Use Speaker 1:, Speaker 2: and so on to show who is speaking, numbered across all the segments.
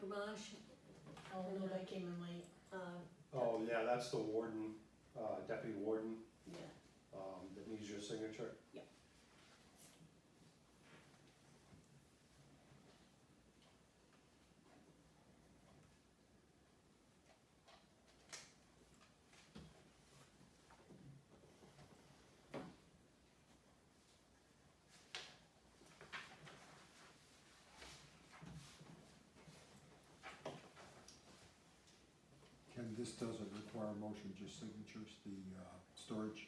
Speaker 1: garage,
Speaker 2: Oh, no, they came in late,
Speaker 1: uh,
Speaker 3: Oh, yeah, that's the warden, uh, deputy warden,
Speaker 2: yeah.
Speaker 3: um, that needs your signature.
Speaker 4: Ken, this doesn't require a motion, just signatures, the uh, storage.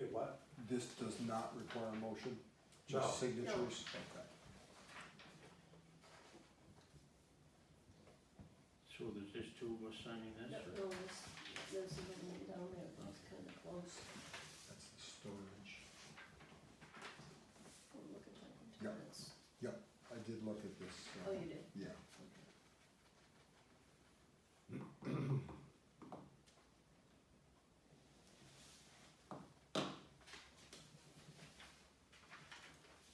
Speaker 3: It what?
Speaker 4: This does not require a motion,
Speaker 3: No.
Speaker 4: just signatures. Okay.
Speaker 5: So there's just two of us signing
Speaker 1: that
Speaker 5: this? or-
Speaker 1: those, those are going down there, that's kinda close.
Speaker 4: That's the storage.
Speaker 1: Oh, look at that.
Speaker 4: Yeah.
Speaker 1: That's-
Speaker 4: Yep, I did look at this. uh,
Speaker 1: Oh, you did?
Speaker 4: Yeah.
Speaker 1: Okay.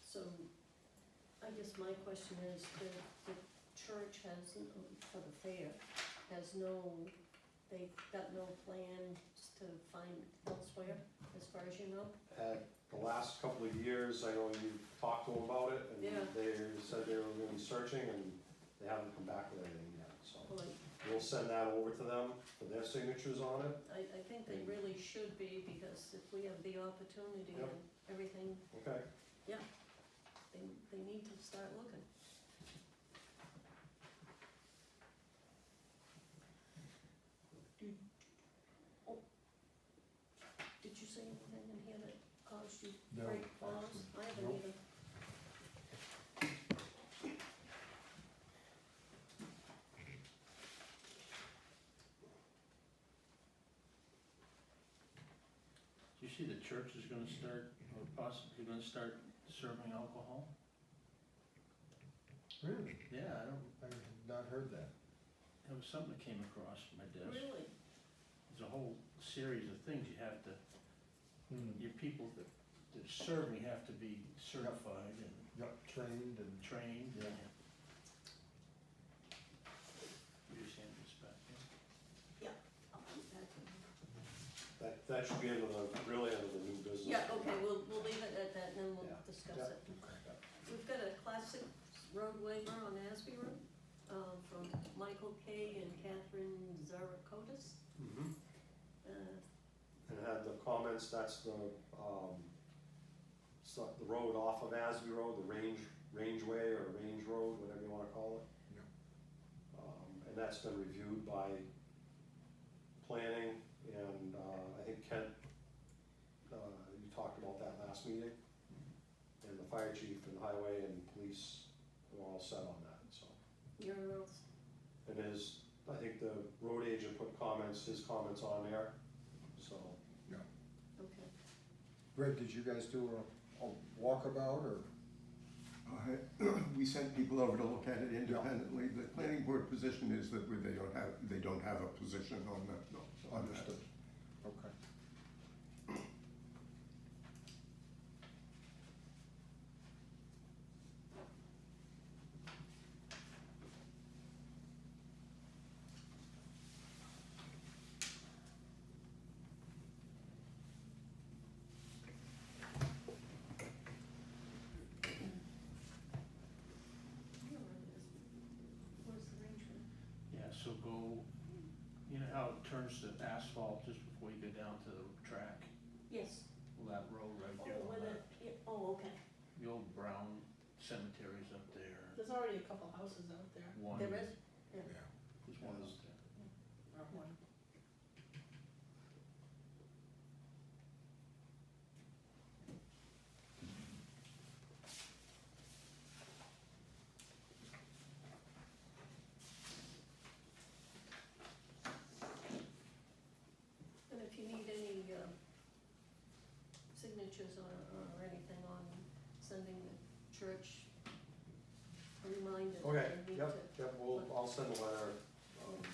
Speaker 1: So, I guess my question is, the, the church has, n- for the fair, has no, they've got no plans to find elsewhere, as far as you know?
Speaker 3: At the last couple of years, I know you talked to them about it, and
Speaker 1: Yeah.
Speaker 3: they said they were gonna be searching, and they haven't come back with anything yet, so.
Speaker 1: Like,
Speaker 3: We'll send that over to them for their signatures on it,
Speaker 1: I, I think they really should be, because if we have the opportunity
Speaker 3: Yep.
Speaker 1: and everything,
Speaker 3: okay?
Speaker 1: they, they need to start looking. Did, oh, did you see anything in here that caused you
Speaker 4: No,
Speaker 1: great pause?
Speaker 4: actually,
Speaker 1: I haven't
Speaker 4: no.
Speaker 1: either.
Speaker 5: Do you see the church is gonna start, or possibly gonna start serving alcohol?
Speaker 4: Really?
Speaker 5: Yeah, I don't,
Speaker 4: I have not heard that.
Speaker 5: that was something that came across my desk.
Speaker 1: Really?
Speaker 5: There's a whole series of things you have to,
Speaker 4: Hmm.
Speaker 5: your people that, that serving have to be certified and
Speaker 4: Yep, trained and,
Speaker 5: trained.
Speaker 4: Yeah.
Speaker 5: You just hand this back, yeah?
Speaker 1: Yeah. I'll put that in.
Speaker 3: That, that should be under the, really under the new business.
Speaker 1: Yeah, okay, we'll, we'll leave it at that, and then we'll
Speaker 3: Yeah.
Speaker 1: discuss it.
Speaker 4: okay.
Speaker 1: We've got a classic road waiver on Asby Road um, from Michael Kay and Catherine Zarakotis.
Speaker 3: Mhm.
Speaker 1: Uh,
Speaker 3: and had the comments, that's the, um, so- the road off of Asby Road, the range, rangeway or range road, whatever you wanna call it.
Speaker 4: Yeah.
Speaker 3: Um, and that's been reviewed by planning and, uh, I think Kent, uh, you talked about that last meeting. And the fire chief and highway and police were all set on that, so.
Speaker 1: You're, all-
Speaker 3: And his, I think the road agent put comments, his comments on there, so.
Speaker 4: Yeah.
Speaker 1: okay.
Speaker 4: Greg, did you guys do a, a walkabout or?
Speaker 6: Uh, We sent people over to look at it independently. The planning board position is that we- they don't have, they don't have a position on that, on that.
Speaker 4: Understood. Okay.
Speaker 1: Where's the range road?
Speaker 5: Yeah, so go, you know how it turns to asphalt just before you go down to the track?
Speaker 1: Yes.
Speaker 5: Well, that road right
Speaker 1: Oh,
Speaker 5: there. on
Speaker 1: where
Speaker 5: that-
Speaker 1: the, yeah, oh, okay.
Speaker 5: The old brown cemetery's up there.
Speaker 2: There's already a couple houses out there,
Speaker 5: One,
Speaker 1: There is?
Speaker 4: Yeah.
Speaker 5: There's one up there.
Speaker 2: or one.
Speaker 1: And if you need any uh, signatures or, or anything on sending the church a reminder. that
Speaker 3: Okay,
Speaker 1: they need
Speaker 3: yep,
Speaker 1: to-
Speaker 3: yep, we'll, I'll send a letter, um,